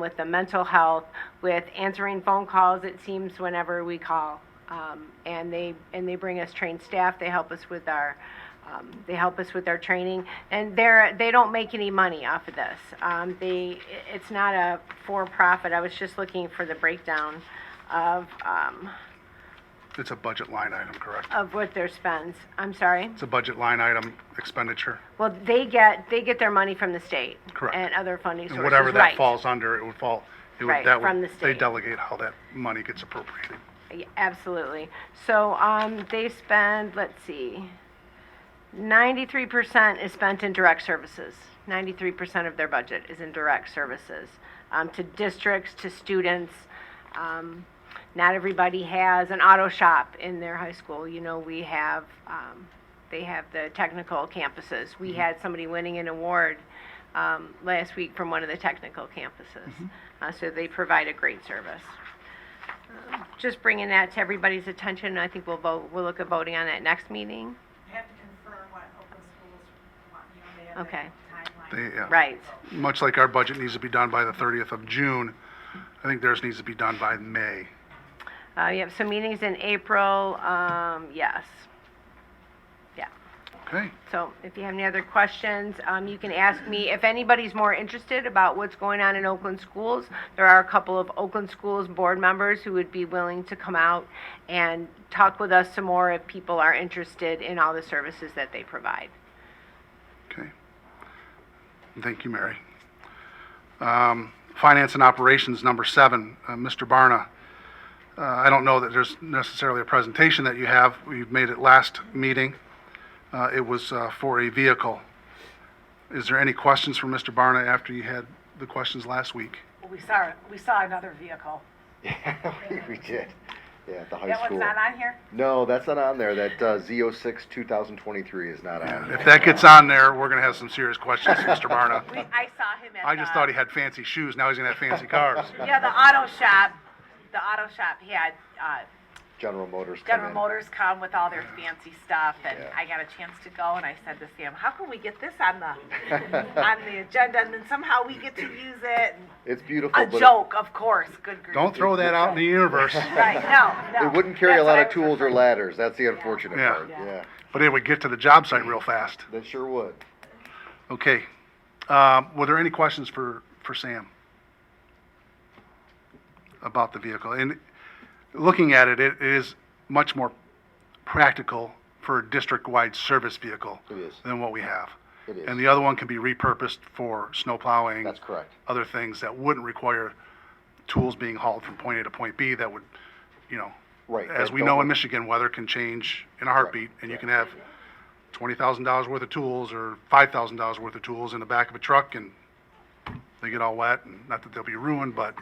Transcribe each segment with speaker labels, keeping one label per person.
Speaker 1: with the mental health, with answering phone calls, it seems, whenever we call. Um, and they, and they bring us trained staff, they help us with our, um, they help us with our training. And they're, they don't make any money off of this. Um, they, it's not a for-profit, I was just looking for the breakdown of, um,
Speaker 2: It's a budget line item, correct?
Speaker 1: of what their spends. I'm sorry?
Speaker 2: It's a budget line item expenditure,
Speaker 1: Well, they get, they get their money from the state.
Speaker 2: Correct.
Speaker 1: And other funding sources,
Speaker 2: and
Speaker 1: right.
Speaker 2: whatever that falls under, it would fall, it
Speaker 1: Right,
Speaker 2: would, that
Speaker 1: from the
Speaker 2: would, they
Speaker 1: state.
Speaker 2: delegate how that money gets appropriated.
Speaker 1: Yeah, Absolutely. So, um, they spend, let's see, ninety-three percent is spent in direct services. Ninety-three percent of their budget is in direct services, um, to districts, to students. Um, not everybody has an auto shop in their high school. You know, we have, um, they have the technical campuses. We had somebody winning an award, um, last week from one of the technical campuses. Uh, so they provide a great service just bringing that to everybody's attention, and I think we'll vote, we'll look at voting on that next meeting.
Speaker 3: I have to confirm what Oakland schools want, you know, they have
Speaker 1: Okay.
Speaker 3: the
Speaker 2: They,
Speaker 3: timeline.
Speaker 2: yeah.
Speaker 1: Right,
Speaker 2: Much like our budget needs to be done by the 30th of June, I think theirs needs to be done by May.
Speaker 1: uh, you have some meetings in April, um, yes. Yeah,
Speaker 2: Okay,
Speaker 1: so if you have any other questions, um, you can ask me, if anybody's more interested about what's going on in Oakland schools, there are a couple of Oakland schools board members who would be willing to come out and talk with us some more if people are interested in all the services that they provide.
Speaker 2: okay. Thank you, Mary. Um, Finance and operations, number seven, uh, Mr. Barna. Uh, I don't know that there's necessarily a presentation that you have. We made it last meeting. Uh, It was uh, for a vehicle. Is there any questions for Mr. Barna after you had the questions last week?
Speaker 4: We saw, we saw another vehicle.
Speaker 5: Yeah, we- we did. Yeah, at the high
Speaker 4: That
Speaker 5: school.
Speaker 4: one's not on here?
Speaker 5: No, that's not on there. That uh, Z06 2023 is not on.
Speaker 2: If that gets on there, we're going to have some serious questions for Mr. Barna.
Speaker 4: I saw him at
Speaker 2: I just
Speaker 4: the-
Speaker 2: thought he had fancy shoes, now he's going to have fancy cars.
Speaker 4: Yeah, the auto shop, the auto shop had, uh,
Speaker 5: General Motors. come
Speaker 4: General
Speaker 5: in.
Speaker 4: Motors come with all their fancy stuff, and
Speaker 5: Yeah.
Speaker 4: I got a chance to go, and I said to Sam, how can we get this on the, on the agenda, and then somehow we get to use it? and-
Speaker 5: It's beautiful.
Speaker 4: A
Speaker 5: Oh, but it-
Speaker 4: joke, of course, good grief.
Speaker 2: Don't throw that out in the universe,
Speaker 4: Right, no,
Speaker 5: It,
Speaker 4: no.
Speaker 5: wouldn't carry
Speaker 4: That's
Speaker 5: a
Speaker 4: what
Speaker 5: lot
Speaker 4: I
Speaker 5: of
Speaker 4: was
Speaker 5: tools or
Speaker 4: referring-
Speaker 5: ladders. That's the unfortunate
Speaker 2: Yeah.
Speaker 5: part.
Speaker 4: Yeah.
Speaker 5: Yeah.
Speaker 2: but it would get to the job site real fast.
Speaker 5: that sure would.
Speaker 2: Okay. Um, Were there any questions for, for Sam? About the vehicle? And looking at it, it is much more practical for a district-wide service vehicle
Speaker 5: It is.
Speaker 2: than what we have.
Speaker 5: It is.
Speaker 2: And the other one can be repurposed for snow plowing.
Speaker 5: That's correct.
Speaker 2: Other things that wouldn't require tools being hauled from point A to point B that would, you know.
Speaker 5: Right,
Speaker 2: As
Speaker 5: that
Speaker 2: we
Speaker 5: don't
Speaker 2: know in
Speaker 5: work.
Speaker 2: Michigan, weather can change in a heartbeat and you
Speaker 5: right.
Speaker 2: can have twenty thousand dollars worth of tools or five thousand dollars worth of tools in the back of a truck and they get all wet and not that they'll be ruined, but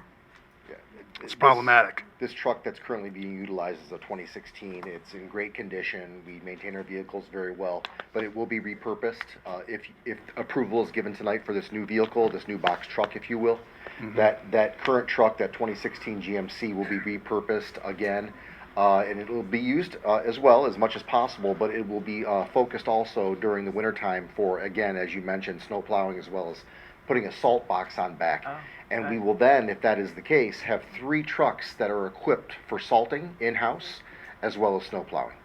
Speaker 5: Yeah.
Speaker 2: it's problematic.
Speaker 5: This truck that's currently being utilized is a 2016. It's in great condition. We maintain our vehicles very well, but it will be repurposed. Uh, if, if approval is given tonight for this new vehicle, this new box truck, if you will,
Speaker 2: Mm-hmm.
Speaker 5: that, that current truck, that 2016 GMC, will be repurposed again. Uh, and it will be used uh, as well as much as possible, but it will be uh, focused also during the wintertime for, again, as you mentioned, snow plowing as well as putting a salt box on back. and we will then, if that is the case, have three trucks that are equipped for salting in-house as well as snow plowing.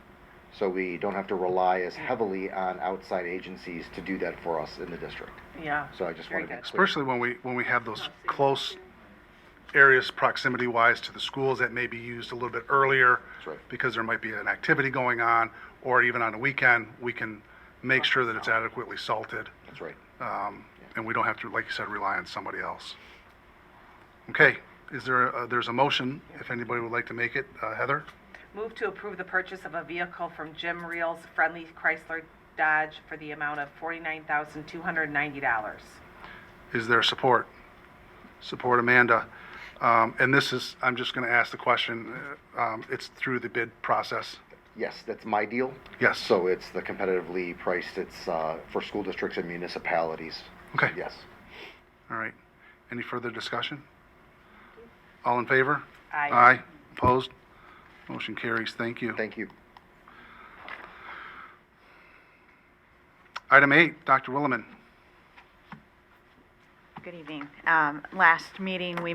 Speaker 5: So we don't have to rely as heavily on outside agencies to do that for us in the district.
Speaker 4: Yeah.
Speaker 5: So I just
Speaker 4: Very
Speaker 5: want to be clear.
Speaker 2: Especially when we, when we have those close areas proximity wise to the schools that may be used a little bit earlier.
Speaker 5: That's right.
Speaker 2: Because there might be an activity going on, or even on a weekend, we can make sure that it's adequately salted.
Speaker 5: That's right.
Speaker 2: Um, and we don't have to, like you said, rely on somebody else. Okay, is there, a- there's a motion, if anybody would like to make it, uh, Heather?
Speaker 4: Move to approve the purchase of a vehicle from Jim Reels Friendly Chrysler Dodge for the amount of forty-nine thousand, two hundred and ninety dollars.
Speaker 2: Is there support? Support Amanda. Um, and this is, I'm just gonna ask the question, uh, um, it's through the bid process.
Speaker 5: Yes, that's my deal.
Speaker 2: Yes.
Speaker 5: So it's the competitively priced, it's uh, for school districts and municipalities.
Speaker 2: Okay.
Speaker 5: Yes.
Speaker 2: All right. Any further discussion? All in favor?
Speaker 4: Aye.
Speaker 2: Aye. Opposed? Motion carries. Thank you.
Speaker 5: Thank you.
Speaker 2: Item eight, Dr. Williman.
Speaker 6: Good evening. Um, Last meeting, we